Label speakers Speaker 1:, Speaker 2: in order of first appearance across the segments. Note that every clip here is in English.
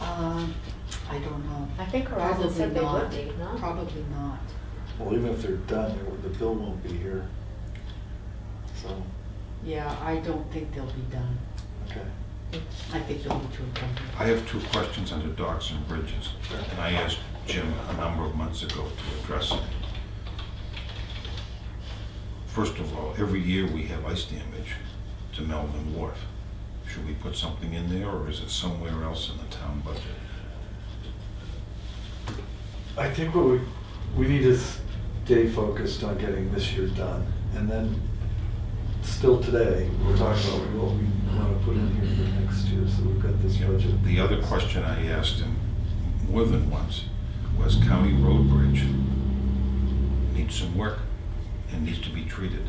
Speaker 1: Um, I don't know.
Speaker 2: I think Horizon said they would
Speaker 1: Probably
Speaker 2: be,
Speaker 1: not.
Speaker 2: no?
Speaker 1: Probably not.
Speaker 3: Well, even if they're done, it- the bill won't be here. So,
Speaker 1: Yeah, I don't think they'll be done.
Speaker 3: okay.
Speaker 1: I think they'll be too
Speaker 4: I have two questions under docks and bridges, and I asked Jim a number of months ago to address it. First of all, every year we have ice damage to Melvin Wharf. Should we put something in there, or is it somewhere else in the town budget?
Speaker 3: I think what we, we need to stay focused on getting this year done. And then, still today, we're talking about what we want to put in here for next year, so we've got this budget.
Speaker 4: The other question I asked him more than once was County Road Bridge needs some work and needs to be treated.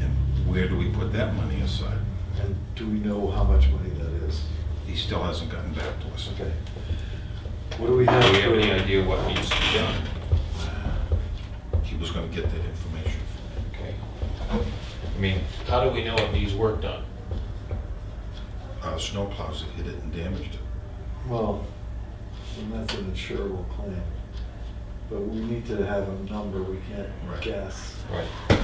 Speaker 4: And where do we put that money aside?
Speaker 3: And do we know how much money that is?
Speaker 4: He still hasn't gotten back to us.
Speaker 3: Okay. What do we
Speaker 5: Do
Speaker 3: have?
Speaker 5: we have
Speaker 3: for-
Speaker 5: any idea what needs to be done?
Speaker 4: uh, He was gonna get that information.
Speaker 5: Okay. I mean, how do we know it needs work done?
Speaker 4: Uh, snowplows have hit it and damaged it.
Speaker 3: Well, and that's an insurable claim. But we need to have a number, we
Speaker 4: Right.
Speaker 3: can't guess.
Speaker 5: Right.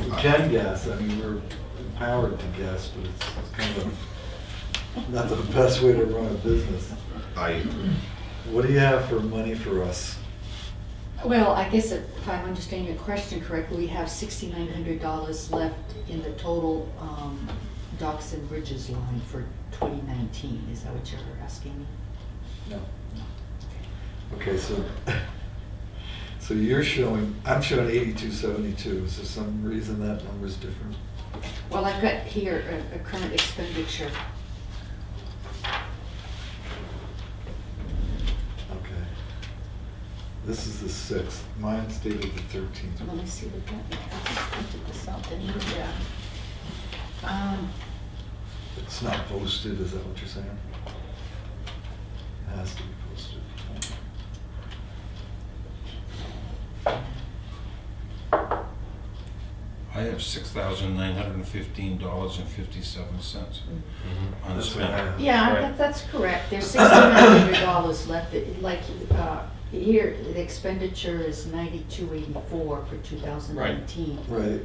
Speaker 3: We can guess, I mean, we're empowered to guess, but it's it's kind of not the best way to run a business.
Speaker 4: I agree.
Speaker 3: What do you have for money for us?
Speaker 1: Well, I guess if if I'm understanding your question correctly, we have sixty-nine hundred dollars left in the total um, docks and bridges line for twenty nineteen. Is that what you're asking me?
Speaker 3: No. Okay, so, so you're showing, I'm showing eighty-two seventy-two, is there some reason that number's different?
Speaker 1: Well, I've got here a- a current expenditure.
Speaker 3: Okay. This is the sixth, mine's dated the thirteenth.
Speaker 1: Let me see what that, I just printed this out, didn't I? Yeah. Um,
Speaker 3: It's not posted, is that what you're saying? It Has to be posted.
Speaker 4: I have six thousand nine hundred and fifteen dollars and fifty-seven cents
Speaker 5: Mm-hmm.
Speaker 4: unspent.
Speaker 1: Yeah,
Speaker 5: Right.
Speaker 1: that- that's correct. There's sixty-nine hundred dollars left. It- Like, uh, here, the expenditure is ninety-two eighty-four for two thousand nineteen.
Speaker 3: Right,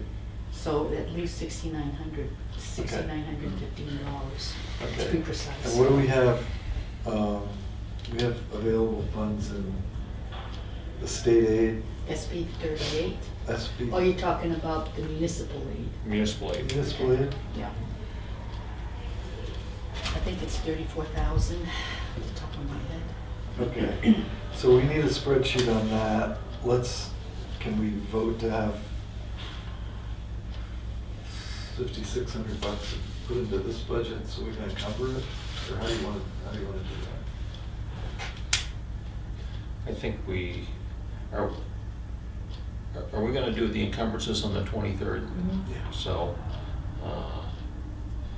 Speaker 1: So at least sixty-nine hundred, sixty-nine hundred fifteen dollars, to be
Speaker 3: okay.
Speaker 1: precise.
Speaker 3: And what do we have, um, we have available funds in the state aid,
Speaker 1: SB thirty-eight?
Speaker 3: SB?
Speaker 1: Oh, you're talking about the municipal aid?
Speaker 5: Municipal aid.
Speaker 3: Municipal aid?
Speaker 1: Yeah. I think it's thirty-four thousand, off the top of my head.
Speaker 3: Okay, so we need a spreadsheet on that. Let's, can we vote to have fifty-six hundred bucks put into this budget so we can cover it? Or how do you want, how do you want to do that?
Speaker 5: I think we, are, are we gonna do the encumbrances on the 23rd?
Speaker 1: Mm-hmm.
Speaker 3: Yeah.
Speaker 5: So, uh,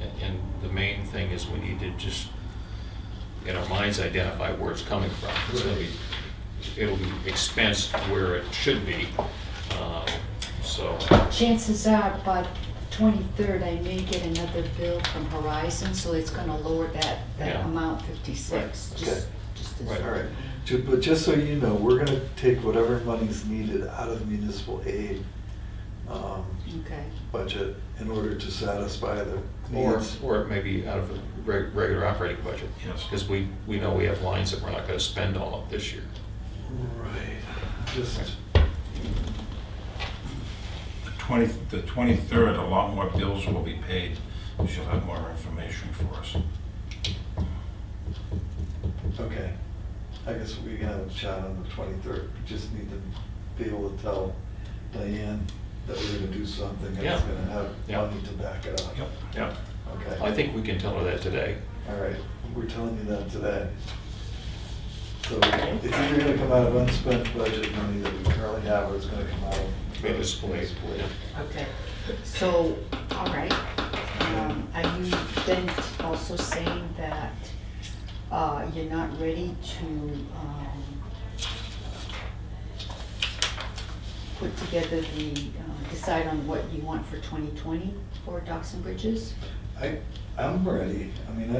Speaker 5: and- and the main thing is we need to just, in our minds, identify where it's coming from. It's gonna be, it'll be expensed where it should be, um, so.
Speaker 1: Chances are, by twenty-third, I may get another bill from Horizon, so it's gonna lower that, that
Speaker 5: Yeah.
Speaker 1: amount fifty-six.
Speaker 5: Right,
Speaker 1: Just,
Speaker 3: okay.
Speaker 1: just as-
Speaker 5: Right,
Speaker 3: All right, Ju- but just so you know, we're gonna take whatever money's needed out of the municipal aid um,
Speaker 1: Okay,
Speaker 3: budget in order to satisfy the
Speaker 5: Or,
Speaker 3: needs.
Speaker 5: or it may be out of the reg- regular operating budget.
Speaker 4: Yes.
Speaker 5: Because we, we know we have lines that we're not gonna spend all of this year.
Speaker 3: Right, just,
Speaker 4: The twenty, the twenty-third, a lot more bills will be paid. She'll have more information for us.
Speaker 3: okay. I guess we can have a chat on the twenty-third, we just need to be able to tell Diane that we're gonna do something and it's
Speaker 5: Yeah.
Speaker 3: gonna have
Speaker 5: Yeah.
Speaker 3: money to back it up.
Speaker 4: Yep.
Speaker 5: Yeah.
Speaker 3: Okay.
Speaker 5: I think we can tell her that today.
Speaker 3: All right, we're telling you that today. So it's either gonna come out of unspent budget money that we currently have, or it's gonna come out of.
Speaker 5: Municipal aid.
Speaker 1: okay. So, all right. Um, Are you then also saying that uh, you're not ready to um, put together the, uh, decide on what you want for 2020 for docks and bridges?
Speaker 3: I, I'm ready, I mean, I